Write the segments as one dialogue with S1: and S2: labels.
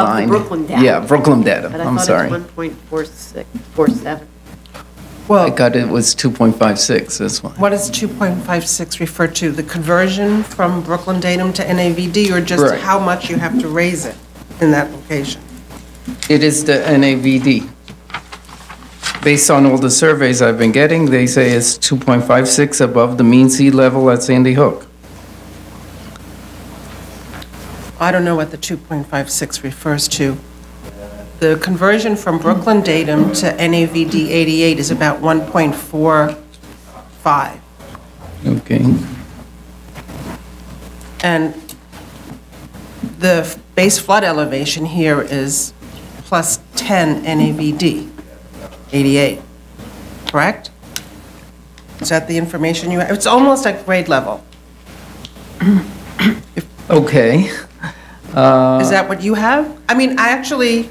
S1: the
S2: line.
S1: Brooklyn data.
S2: Yeah, Brooklyn data,
S1: But I
S2: I'm
S1: thought
S2: sorry.
S1: it's 1.46, 47.
S2: I
S3: Well,
S2: got it was 2.56, that's why.
S3: what does 2.56 refer to? The conversion from Brooklyn Datum to NAVD, or just
S2: Right.
S3: how much you have to raise it in that location?
S2: It is the NAVD. Based on all the surveys I've been getting, they say it's 2.56 above the mean sea level at Sandy Hook.
S3: I don't know what the 2.56 refers to. The conversion from Brooklyn Datum to NAVD 88 is about 1.45.
S2: Okay,
S3: And the f- base flood elevation here is plus 10 NAVD, 88, correct? Is that the information you, have? it's almost at grade level.
S2: okay. Uh,
S3: Is that what you have? I mean, I actually,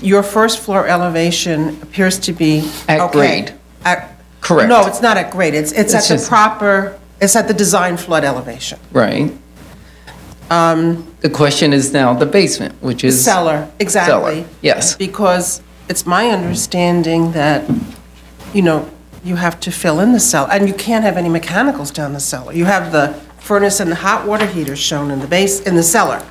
S3: your first floor elevation appears to be.
S2: At
S3: okay.
S2: grade.
S3: At-
S2: Correct.
S3: No, it's not at grade, it's, it's at
S2: It's
S3: the
S2: just-
S3: proper, it's at the design flood elevation.
S2: Right. Um, The question is now the basement, which is.
S3: Seller, exactly.
S2: yes.
S3: Because it's my understanding that, you know, you have to fill in the cellar, and you can't have any mechanicals down the cellar. You have the furnace and the hot water heater shown in the base, in the cellar.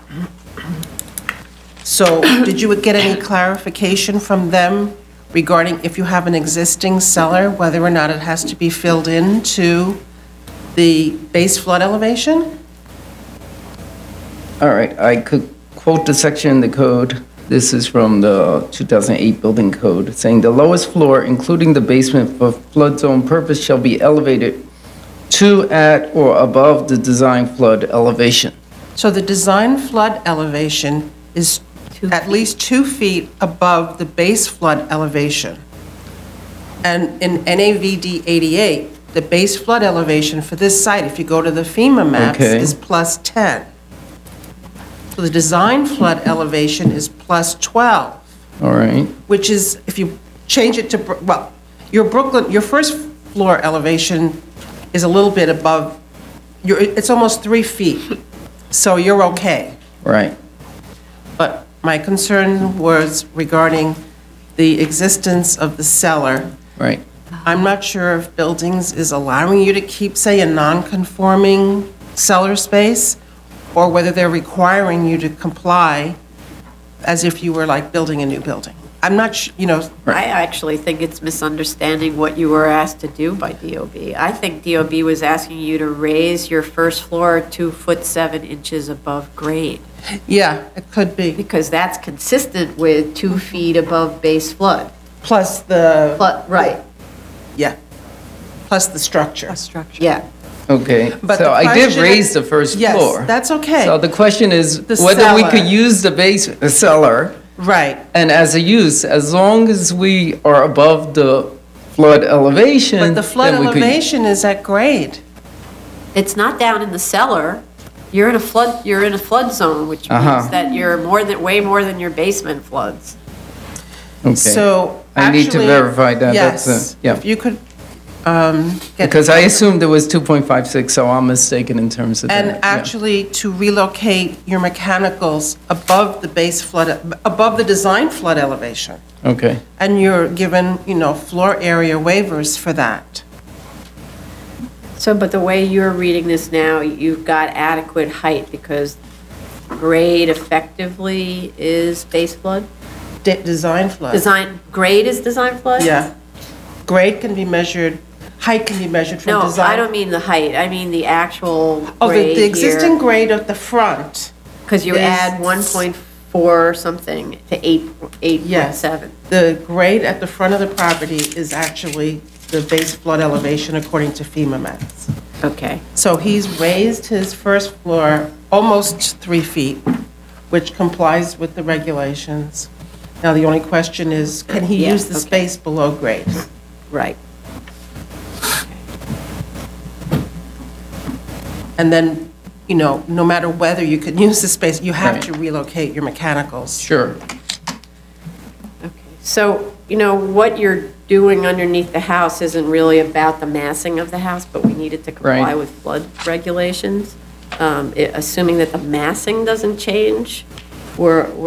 S3: So did you get any clarification from them regarding if you have an existing cellar, whether or not it has to be filled in to the base flood elevation?
S2: All right, I could quote the section in the code. This is from the 2008 building code, saying the lowest floor, including the basement for flood zone purpose, shall be elevated to at or above the design flood elevation.
S3: So the design flood elevation is at least two feet above the base flood elevation. And in NAVD 88, the base flood elevation for this site, if you go to the FEMA maps,
S2: Okay.
S3: is plus 10. So the design flood elevation is plus 12
S2: All right,
S3: which is, if you change it to, Bro- well, your Brooklyn, your first floor elevation is a little bit above, you're, it's almost three feet, so you're okay.
S2: right.
S3: But my concern was regarding the existence of the cellar.
S2: Right.
S3: I'm not sure if buildings is allowing you to keep, say, a non-conforming cellar space, or whether they're requiring you to comply as if you were like building a new building. I'm not, su- you know,
S1: I actually think it's misunderstanding what you were asked to do by DOB. I think DOB was asking you to raise your first floor two foot seven inches above grade,
S3: Yeah, it could be.
S1: because that's consistent with two feet above base flood.
S3: Plus the,
S1: But, right,
S3: yeah, plus the structure.
S1: yeah.
S2: Okay,
S3: But
S2: so
S3: the
S2: I did
S3: question-
S2: raise the first
S3: Yes,
S2: floor.
S3: that's okay.
S2: So the question is
S3: The
S2: whether we
S3: cellar.
S2: could use the basement, the cellar,
S3: Right.
S2: and as a use, as long as we are above the flood elevation.
S3: But the flood
S2: then we could-
S3: elevation is at grade.
S1: It's not down in the cellar. You're in a flood, you're in a flood zone, which
S2: Uh-huh.
S1: means that you're more than, way more than your basement floods.
S2: Okay.
S3: So
S2: I need to
S3: actually-
S2: verify that. That's a-
S3: Yes,
S2: yeah.
S3: If you could um, get.
S2: Because I assumed there was 2.56, so I'm mistaken in terms of that.
S3: And
S2: yeah.
S3: actually to relocate your mechanicals above the base flood, above the design flood elevation.
S2: Okay,
S3: And you're given, you know, floor area waivers for that.
S1: So, but the way you're reading this now, you've got adequate height because grade effectively is base flood?
S3: De- Design flood.
S1: Design, grade is design flood?
S3: Yeah. Grade can be measured, height can be measured
S1: No,
S3: from design.
S1: I don't mean the height, I mean the actual
S3: Oh, the,
S1: grade
S3: the existing
S1: here.
S3: grade of the front,
S1: Because you
S3: is-
S1: add 1.4 something to 8, 8.7.
S3: the grade at the front of the property is actually the base flood elevation according to FEMA maps.
S1: Okay.
S3: So he's raised his first floor almost three feet, which complies with the regulations. Now, the only question is, can he
S1: Yeah,
S3: use the
S1: okay.
S3: space below grade?
S1: Right.
S3: And then, you know, no matter whether you can use the space, you have
S2: Right.
S3: to relocate your mechanicals.
S2: sure.
S1: Okay. So, you know, what you're doing underneath the house isn't really about the massing of the house, but we need it to comply
S2: Right.
S1: with flood regulations. Um, i- Assuming that the massing doesn't change, we're,